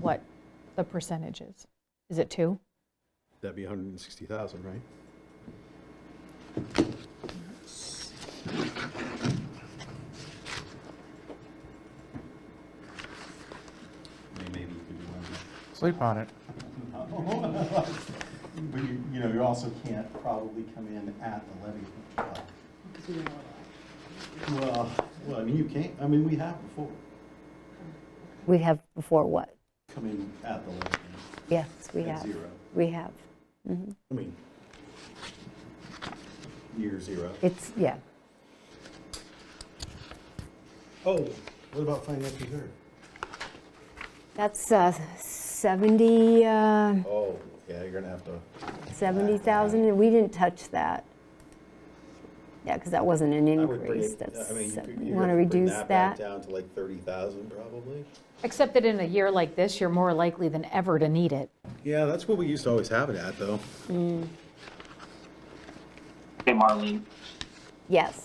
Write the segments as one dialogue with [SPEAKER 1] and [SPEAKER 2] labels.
[SPEAKER 1] what the percentage is. Is it two?
[SPEAKER 2] That'd be 160,000, right?
[SPEAKER 3] Maybe you could do one.
[SPEAKER 4] Sleep on it.
[SPEAKER 3] But you, you know, you also can't probably come in at the levy. uh, Well, well, I mean, you can't, I mean, we have before,
[SPEAKER 5] We have before what?
[SPEAKER 3] come in at the levy
[SPEAKER 5] Yes, we
[SPEAKER 3] at
[SPEAKER 5] have.
[SPEAKER 3] zero.
[SPEAKER 5] We have.
[SPEAKER 3] I mean, near zero.
[SPEAKER 5] It's, yeah.
[SPEAKER 3] Oh, what about finance reserve?
[SPEAKER 5] That's uh, 70, uh,
[SPEAKER 3] Oh, yeah, you're gonna have to,
[SPEAKER 5] 70,000, and we didn't touch that. Yeah, because that wasn't an
[SPEAKER 3] I would bring
[SPEAKER 5] increase.
[SPEAKER 3] it,
[SPEAKER 5] That's,
[SPEAKER 3] I mean, you could- you'd
[SPEAKER 5] want
[SPEAKER 3] have
[SPEAKER 5] to
[SPEAKER 3] to bring
[SPEAKER 5] reduce
[SPEAKER 3] that back
[SPEAKER 5] that?
[SPEAKER 3] down to like 30,000 probably.
[SPEAKER 1] Except that in a year like this, you're more likely than ever to need it.
[SPEAKER 2] Yeah, that's what we used to always have it at, though.
[SPEAKER 6] Hey, Marlene,
[SPEAKER 5] Yes.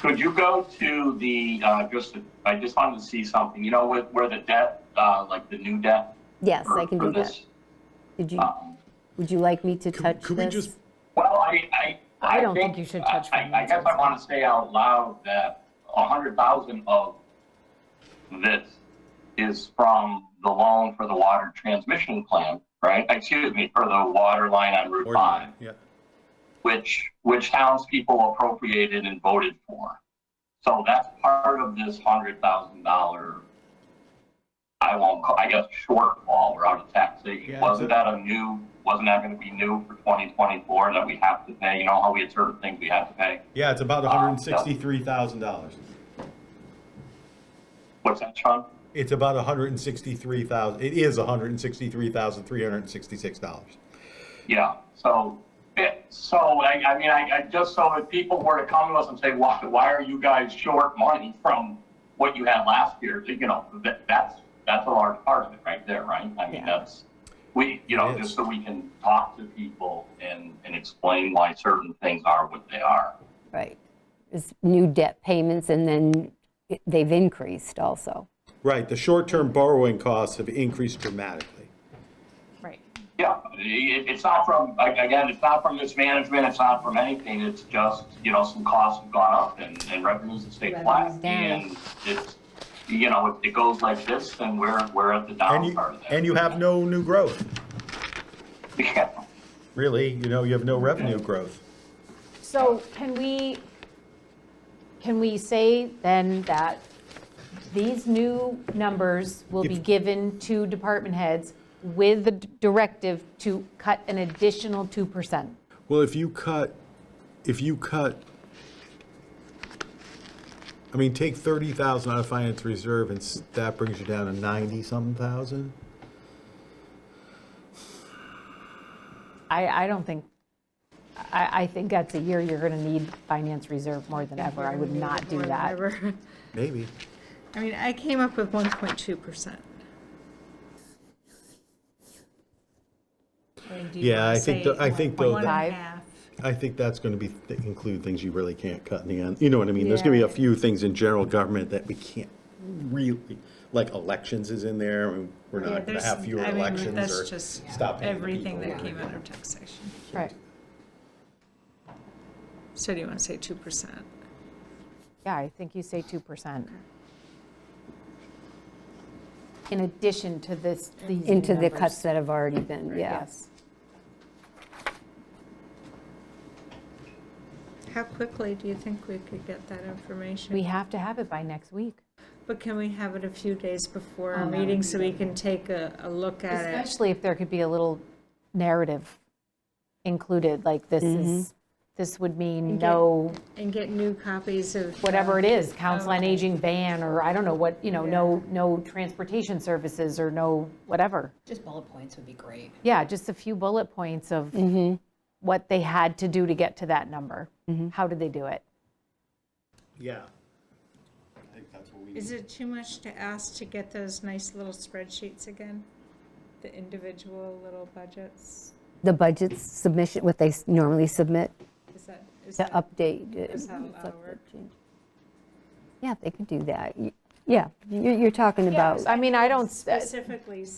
[SPEAKER 6] could you go to the, uh, just, I just wanted to see something, you know, with, where the debt, uh, like the new debt?
[SPEAKER 5] Yes, I
[SPEAKER 6] for-
[SPEAKER 5] can
[SPEAKER 6] for
[SPEAKER 5] do that.
[SPEAKER 6] this,
[SPEAKER 5] Did you,
[SPEAKER 6] um,
[SPEAKER 5] would you like me to touch
[SPEAKER 2] could we
[SPEAKER 5] this?
[SPEAKER 2] just-
[SPEAKER 6] Well, I, I.
[SPEAKER 7] I don't think you should touch
[SPEAKER 6] I- I I guess I
[SPEAKER 7] finances.
[SPEAKER 6] want to say out loud that a hundred thousand of this is from the loan for the water transmission plan, right? Excuse me, for the water line on Route
[SPEAKER 2] Or-
[SPEAKER 6] Five,
[SPEAKER 2] Yeah,
[SPEAKER 6] which, which townspeople appropriated and voted for. So that's part of this hundred thousand dollar, I won't, call I guess shortfall, we're out of
[SPEAKER 2] Yeah,
[SPEAKER 6] taxation.
[SPEAKER 2] it's
[SPEAKER 6] Wasn't
[SPEAKER 2] a-
[SPEAKER 6] that a new, wasn't that gonna be new for twenty twenty-four that we have to pay? You know how we had certain things we had to pay?
[SPEAKER 2] yeah, it's about $163,000.
[SPEAKER 6] What's that, Sean?
[SPEAKER 2] It's about 163,000, it is $163,366.
[SPEAKER 6] Yeah, so, it, so, I, I mean, I, I just, so if people were to come to us and say, why, why are you guys short money from what you had last year, you know, that, that's, that's a large part of it right there, right? I mean,
[SPEAKER 5] Yeah.
[SPEAKER 6] that's, we, you know,
[SPEAKER 2] It is.
[SPEAKER 6] just so we can talk to people and, and explain why certain things are what they are.
[SPEAKER 5] Right. It's new debt payments, and then it- they've increased also.
[SPEAKER 2] Right, the short-term borrowing costs have increased dramatically.
[SPEAKER 1] Right.
[SPEAKER 6] Yeah, it, it's not from, like, again, it's not from mismanagement, it's not from anything, it's just, you know, some costs have gone up and, and revenues have stayed flat.
[SPEAKER 5] Revenues down.
[SPEAKER 6] And it's, you know, if it goes like this, then we're, we're at the
[SPEAKER 2] And
[SPEAKER 6] down
[SPEAKER 2] you,
[SPEAKER 6] part of that.
[SPEAKER 2] and you have no new growth,
[SPEAKER 6] Yeah.
[SPEAKER 2] really, you know, you have no revenue growth.
[SPEAKER 1] So can we, can we say then that these new numbers will be
[SPEAKER 2] If-
[SPEAKER 1] given to department heads with the d- directive to cut an additional 2%?
[SPEAKER 2] Well, if you cut, if you cut, I mean, take thirty thousand out of finance reserve, and s- that brings you down to ninety-something thousand?
[SPEAKER 1] I, I don't think, I, I think that's a year you're going to need finance reserve more than ever. I would not do
[SPEAKER 7] More than
[SPEAKER 1] that.
[SPEAKER 7] ever.
[SPEAKER 2] Maybe.
[SPEAKER 7] I mean, I came up with 1.2%.
[SPEAKER 2] Yeah, I think, tho- I think uh, though,
[SPEAKER 7] One and
[SPEAKER 2] that-
[SPEAKER 1] Five.
[SPEAKER 7] a half.
[SPEAKER 2] I think that's gonna be, th- include things you really can't cut in the end, you know what I mean? There's gonna be a few things in general government that we can't really, like elections is in there, and we're
[SPEAKER 7] Yeah,
[SPEAKER 2] not gonna
[SPEAKER 7] there's-
[SPEAKER 2] have fewer
[SPEAKER 7] I mean,
[SPEAKER 2] elections
[SPEAKER 7] that's
[SPEAKER 2] or
[SPEAKER 7] just
[SPEAKER 2] stop paying the
[SPEAKER 7] Everything
[SPEAKER 2] people
[SPEAKER 7] that
[SPEAKER 2] or
[SPEAKER 7] came out
[SPEAKER 2] whatever.
[SPEAKER 7] of taxation.
[SPEAKER 1] Right.
[SPEAKER 7] So do you want to say 2%?
[SPEAKER 1] Yeah, I think you say 2%. In addition to this, these new
[SPEAKER 5] Into the
[SPEAKER 1] numbers.
[SPEAKER 5] cuts that have already been, yeah.
[SPEAKER 1] Yes.
[SPEAKER 7] How quickly do you think we could get that information?
[SPEAKER 1] We have to have it by next week.
[SPEAKER 7] But can we have it a few days before our meeting so we can take a, a look at it?
[SPEAKER 1] Especially if there could be a little narrative included, like this
[SPEAKER 5] Mm-hmm.
[SPEAKER 1] is, this would mean
[SPEAKER 7] get-
[SPEAKER 1] no,
[SPEAKER 7] And get new copies of. uh,
[SPEAKER 1] whatever it is, council on
[SPEAKER 7] Okay.
[SPEAKER 1] aging ban, or I don't know what, you know, no, no transportation services, or no whatever.
[SPEAKER 8] Just bullet points would be great.
[SPEAKER 1] Yeah, just a few bullet points of what they had to do to get to that number. How did they do it?
[SPEAKER 2] Yeah.
[SPEAKER 3] I think that's what we need.
[SPEAKER 7] Is it too much to ask to get those nice little spreadsheets again? The individual little budgets?
[SPEAKER 5] The budget submission, what they s- normally submit
[SPEAKER 7] Is that, is
[SPEAKER 5] to
[SPEAKER 7] that,
[SPEAKER 5] update. uh,
[SPEAKER 7] Is that
[SPEAKER 5] reflect
[SPEAKER 7] allowed?
[SPEAKER 5] the change. Yeah, they could do that. You-
[SPEAKER 9] Yeah, you- you're talking about.
[SPEAKER 5] I mean, I don't, s-
[SPEAKER 1] specifically